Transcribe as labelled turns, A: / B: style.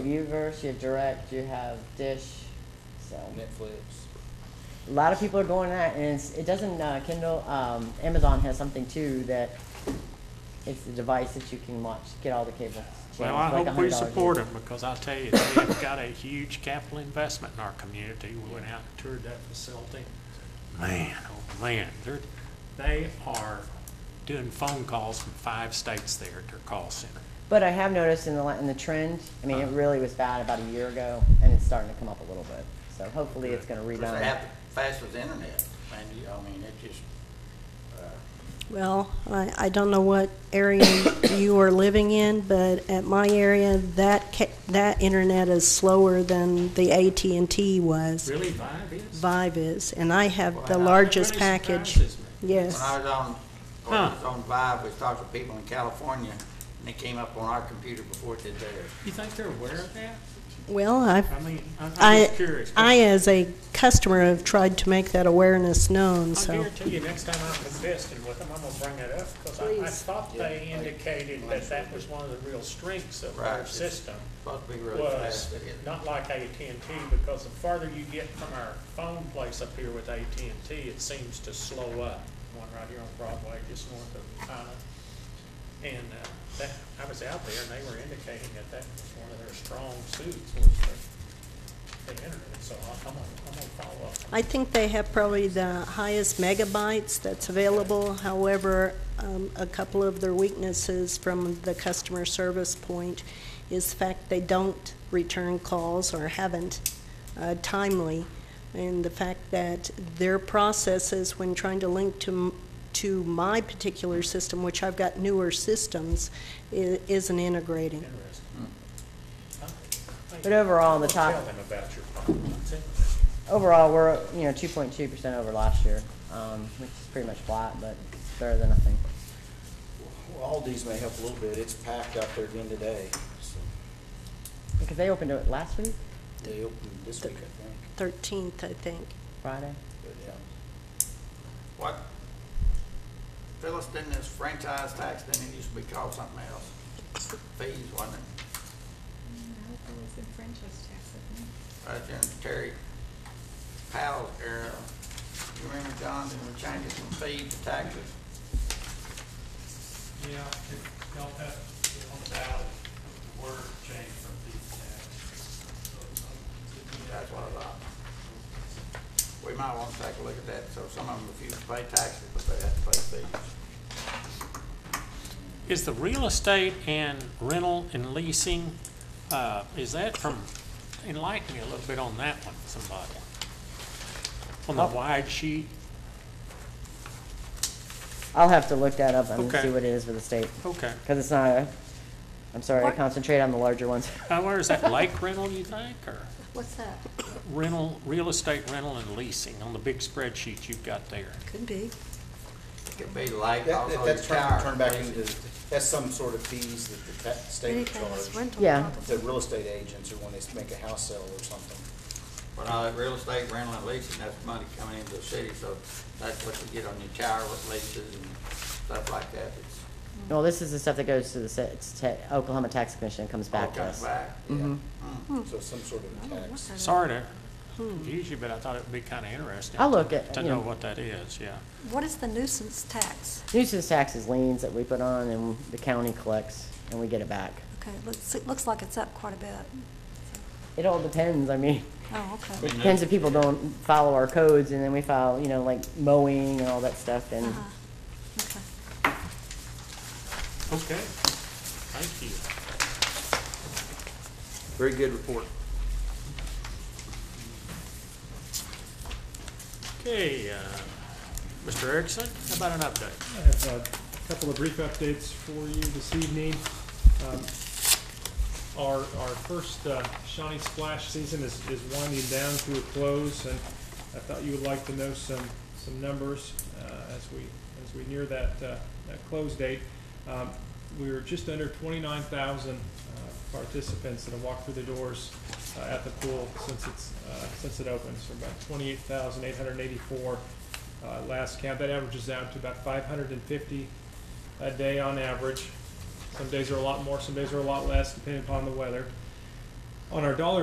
A: You have Uverse, you have Direct, you have Dish, so.
B: Netflix.
A: A lot of people are going that, and it's, it doesn't, uh, Kindle, um, Amazon has something too that it's a device that you can watch, get all the cable
C: Well,
A: channels,
C: I
A: like a
C: hope
A: hundred
C: we
A: dollars.
C: support them, because I tell you, they've got a huge capital investment in our community. We went out and toured that facility. Man, oh man, they're, they are doing phone calls from five states there at their call center.
A: But I have noticed in the, la- in the trend, I mean, it
C: Uh-huh.
A: really was bad about a year ago, and it's starting to come up a little bit, so hopefully it's gonna
D: Because they
A: rebound.
D: have fast with the internet, and, you- I mean, it just, uh,
E: Well, I, I don't know what area you are living in, but at my area, that ca- that internet is slower than the AT and T was.
C: Really, Vive is?
E: Vive is, and I have the
D: Wow.
E: largest
C: Really
E: package.
C: surprises me.
E: Yes.
D: when I was on, when I was
C: Huh.
D: on Vibe, we talked to people in California, and it came up on our computer before it did theirs.
C: You think they're aware of that?
E: Well, I've
C: I mean, I'm I'm
E: I,
C: just curious.
E: I, as a customer, have tried to make that awareness known,
C: I
E: so.
C: guarantee you, next time I'm investing with them, I'm gonna bring that up, because I, I
E: Please.
C: thought they indicated that that was one of the real strengths of
D: Right,
C: our
D: it's-
C: system.
D: Supposed to be really fast.
C: was
D: it is.
C: not like AT&T, because the farther you get from our phone place up here with AT&T, it seems to slow up. One right here on Broadway, just north of China. And uh, that, I was out there, and they were indicating that that was one of their strong suits, was the, the internet, so I- I'm gonna, I'm gonna follow up.
E: I think they have probably the highest megabytes that's available. However, um, a couple of their weaknesses from the customer service point is the fact they don't return calls or haven't uh, timely, and the fact that their processes when trying to link to m- to my particular system, which I've got newer systems, i- isn't integrating.
C: Interesting.
D: hmm.
C: Huh?
A: But overall, the top-
C: Tell them about your problem. That's it.
A: Overall, we're, you know, two point two percent over last year, um, which is pretty much flat, but it's better than nothing.
F: Well, all these may help a little bit. It's packed out there again today, so
A: Because they opened it last week,
F: they opened this week, I think,
E: Thirteenth, I think.
A: Friday.
F: but yeah.
D: What, Phyllis, didn't this franchise tax, didn't it used to be called something else? Fees, wasn't it?
G: No, it was in franchise tax, I think.
D: Right there in Terry Powell's era. You remember, John, they were changing from fees to taxes?
C: Yeah, it helped out on the ballot, the word changed from these uh, tax.
D: That's what I thought. We might want to take a look at that, so some of them refuse to pay taxes, but they have to pay fees.
C: Is the real estate and rental and leasing, uh, is that from, enlighten me a little bit on that one, somebody. On the wide sheet?
A: I'll have to look that up and
C: Okay.
A: see what it is for the state,
C: Okay.
A: because it's not, a- I'm sorry, I
C: What?
A: concentrate on the larger ones.
C: Uh, where is that, lake rental, you think, or
E: What's that?
C: rental, real estate rental and leasing on the big spreadsheet you've got there?
E: Could be.
D: Could be like
F: That,
D: also
F: that-
D: your
F: that's turned,
D: tower.
F: turned back into, that's some sort of fees that the ta- state would charge.
A: Yeah.
F: The real estate agents or when they make a house sale or something.
D: But all that real estate rental and leasing, that's money coming into the city, so that's what you get on your tower with leases and stuff like that. It's
A: Well, this is the stuff that goes to the sa- it's ta- Oklahoma Tax Commission, and comes
D: all
A: back to
D: comes
A: us.
D: back.
F: Mm-hmm.
D: Hmm.
A: Mhm.
F: So some sort of tax.
C: Sorry to confuse you, but I thought it would be kind of interesting.
A: I'll look at-
C: To
A: you
C: know
A: know.
C: what that is, yeah.
H: What is the nuisance tax?
A: Nuisance taxes, liens that we put on, and the county collects, and we get it back.
H: Okay, looks, it looks like it's up quite a bit.
A: It all depends, I mean,
H: Oh, okay.
A: it depends if people don't follow our codes, and then we file, you know, like mowing and all that stuff, and
E: Ah,
H: Uh-huh. Okay.
C: Okay, thank you.
F: Very good report.
C: Okay, uh, Mr. Erickson, how about an update?
I: I have a couple of brief updates for you this evening. Um, Our, our first uh, Shawnee Splash season is, is winding down to a close, and I thought you would like to know some, some numbers uh, as we, as we near that, uh, that close date. Um, We were just under twenty-nine thousand uh, participants that have walked through the doors uh, at the pool since it's, uh, since it opens, from about twenty-eight thousand eight hundred and eighty-four uh, last count. That averages out to about 550 a day on average. Some days are a lot more, some days are a lot less, depending upon the weather. on our dollar